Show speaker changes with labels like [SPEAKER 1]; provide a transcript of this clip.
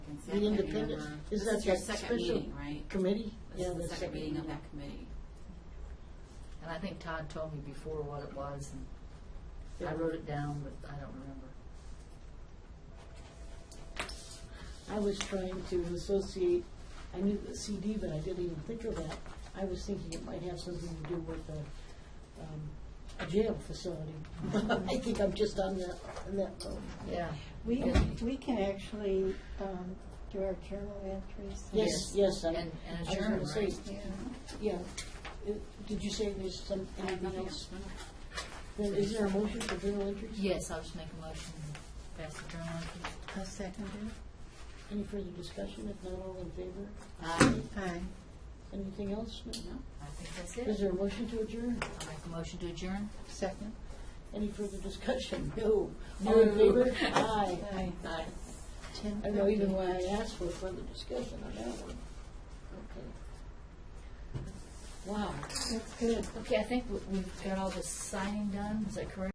[SPEAKER 1] The independent, is that
[SPEAKER 2] uh, This is your
[SPEAKER 1] that
[SPEAKER 2] second
[SPEAKER 1] special
[SPEAKER 2] meeting, right?
[SPEAKER 1] committee?
[SPEAKER 2] This
[SPEAKER 1] Yeah,
[SPEAKER 2] is the second meeting of that committee.
[SPEAKER 3] And I think Todd told me before what it was, and I
[SPEAKER 1] Yeah.
[SPEAKER 3] wrote it down, but I don't remember.
[SPEAKER 1] I was trying to associate, I knew the CD, but I didn't even think of that. I was thinking it might have something to do with a, um, a jail facility. I think I'm just on that, on that boat.
[SPEAKER 3] Yeah.
[SPEAKER 4] We, we can actually um, do our journal entries.
[SPEAKER 1] Yes, yes, I, I
[SPEAKER 3] And, and
[SPEAKER 1] was gonna
[SPEAKER 3] adjourn,
[SPEAKER 1] say,
[SPEAKER 3] right?
[SPEAKER 4] Yeah.
[SPEAKER 1] yeah. Uh, Did you say there's some,
[SPEAKER 2] I have
[SPEAKER 1] anything
[SPEAKER 2] nothing
[SPEAKER 1] else?
[SPEAKER 2] else.
[SPEAKER 1] Then Is there a motion for journal entries?
[SPEAKER 3] Yes, I'll just make a motion, to pass the journal entries.
[SPEAKER 4] I'll second it.
[SPEAKER 1] Any further discussion? If not, all in favor?
[SPEAKER 3] Aye.
[SPEAKER 4] Aye.
[SPEAKER 1] Anything else? No?
[SPEAKER 2] No?
[SPEAKER 3] I think that's
[SPEAKER 1] Is
[SPEAKER 3] it.
[SPEAKER 1] there a motion to adjourn?
[SPEAKER 3] I'll make a motion to adjourn.
[SPEAKER 4] Second.
[SPEAKER 1] Any further discussion? No. All in favor? Aye.
[SPEAKER 4] Aye.
[SPEAKER 3] Aye.
[SPEAKER 1] I don't know even why I asked for further discussion on that one. Okay. Wow.
[SPEAKER 4] That's good.
[SPEAKER 3] Okay, I think we- we've got all the signing done, is that correct?